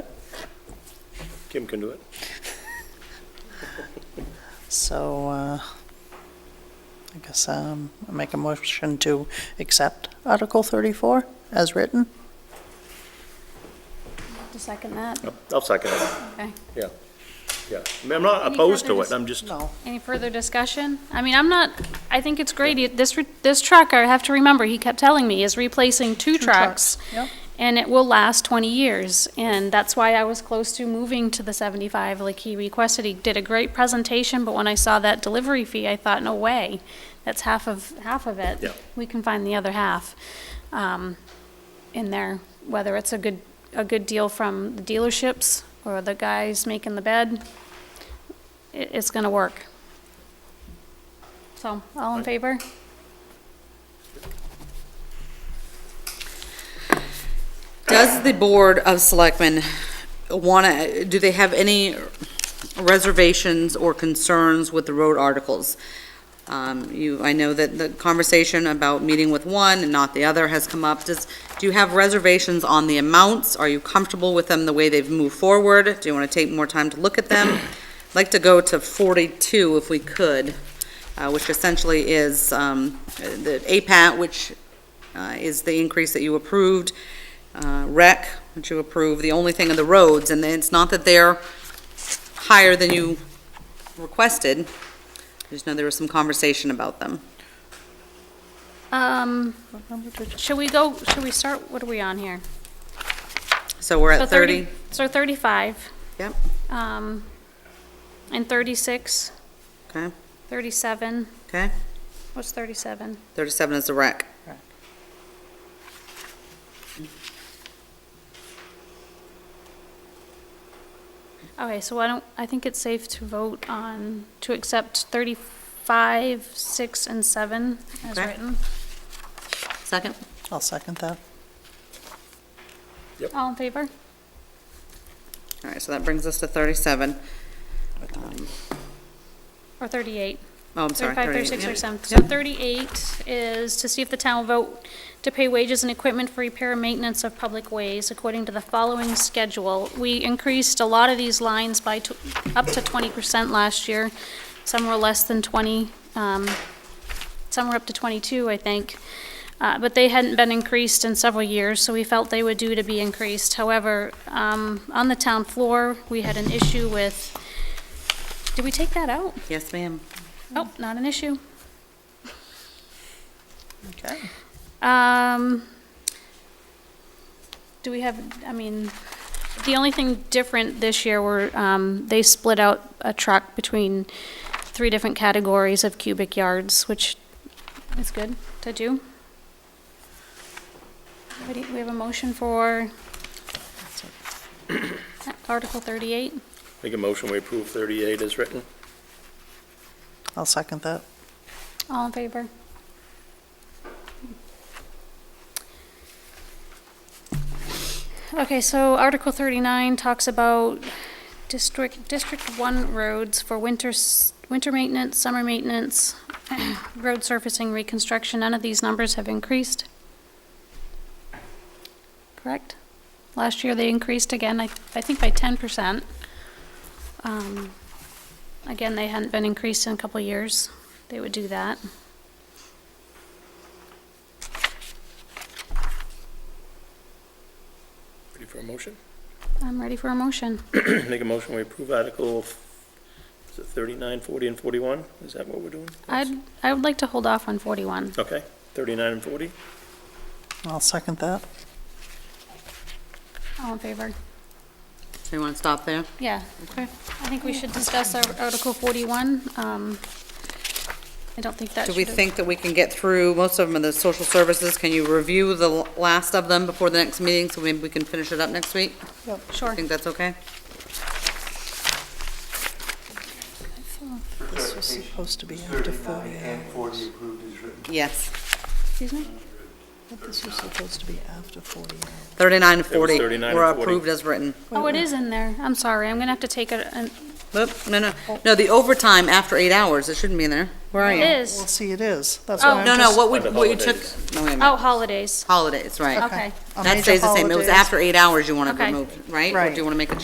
Kim can do it. So, uh, I guess, um, I make a motion to accept Article thirty-four as written. To second that, I'll- I'll second it, okay. yeah, yeah. I mean, I'm not Any opposed to further it, I'm just, No. Any further discussion? I mean, I'm not, I think it's great. You- This, re- this truck, I have to remember, he kept telling me, is replacing two trucks. Yep. And it will last 20 years. And that's why I was close to moving to the 75 like he requested. He did a great presentation, but when I saw that delivery fee, I thought, no way. That's half of, half of it. Yeah. We can find the other half um, in there, whether it's a good, a good deal from the dealerships or the guys making the bed. It, it's going to work. So, all in favor? Does the Board of Selectmen want to, do they have any reservations or concerns with the road articles? Um, You, I know that the conversation about meeting with one and not the other has come up. Does, do you have reservations on the amounts? Are you comfortable with them, the way they've moved forward? Do you want to take more time to look at them? I'd like to go to 42 if we could, uh, which essentially is um, the APAT, which uh, is the increase that you approved, uh, rec, which you approved, the only thing are the roads, and then it's not that they're higher than you requested, I just know there was some conversation about them. Um, should we go, should we start, what are we on here? So we're So at 30? So 35, Yep, um, and 36, okay, 37, okay. what's 37? 37 is the rec. Okay, so I don't, I think it's safe to vote on, to accept 35, 6, and 7 as Okay. written. Second? I'll second that. All in favor? All right, so that brings us to 37. Or 38? Oh, I'm sorry. 35, 38, 36, yep. or 7. So 38 is to see if the town will vote to pay wages and equipment for repair and maintenance of public ways according to the following schedule. We increased a lot of these lines by tw- up to 20% last year. Some were less than 20, um, some were up to 22, I think. Uh, But they hadn't been increased in several years, so we felt they were due to be increased. However, um, on the town floor, we had an issue with, did we take that out? Yes, ma'am. Oh, not an issue. Okay. Um, do we have, I mean, the only thing different this year were, um, they split out a truck between three different categories of cubic yards, which is good to do. What do you- We have a motion for Article thirty-eight. make a motion, we approve 38 as written. I'll second that. All in favor? Okay, so Article 39 talks about District, District 1 roads for winter, s- winter maintenance, summer maintenance, road surfacing reconstruction. None of these numbers have increased. Correct? Last year, they increased again, I, I think by 10%. Um, Again, they hadn't been increased in a couple of years. They would do that. Ready for a motion? I'm ready for a motion. Make a motion, we approve Article, f- is it 39, 40, and 41? Is that what we're doing? I'd, I would like to hold off on 41. Okay, 39 and 40? I'll second that. All in favor? So you want to stop there? Yeah. Okay. I think we should discuss our Article 41. Um, I don't think that Do should. we think that we can get through, most of them are the social services, can you review the l- last of them before the next meeting, so maybe we can finish it up next week? I Sure. think that's okay? This was supposed to be after forty And hours. 40 approved is written. Yes. Excuse me? But This was supposed to be after forty hours. 39 and 40 39 and were 40. approved as written. Oh, it is in there. I'm sorry. I'm going to have to take it. an- Oop, No, no, no, the overtime after eight hours, it shouldn't be in there. Where are It you? Well, is. see, it is. That's Oh. why I'm No, no, just- what we, Under what you took, holidays. no, wait a minute. Oh, holidays. Holidays, right. Okay. A That major stays the same. It was holidays. after eight hours you want to Okay. remove, right? Or Right. do you want to make a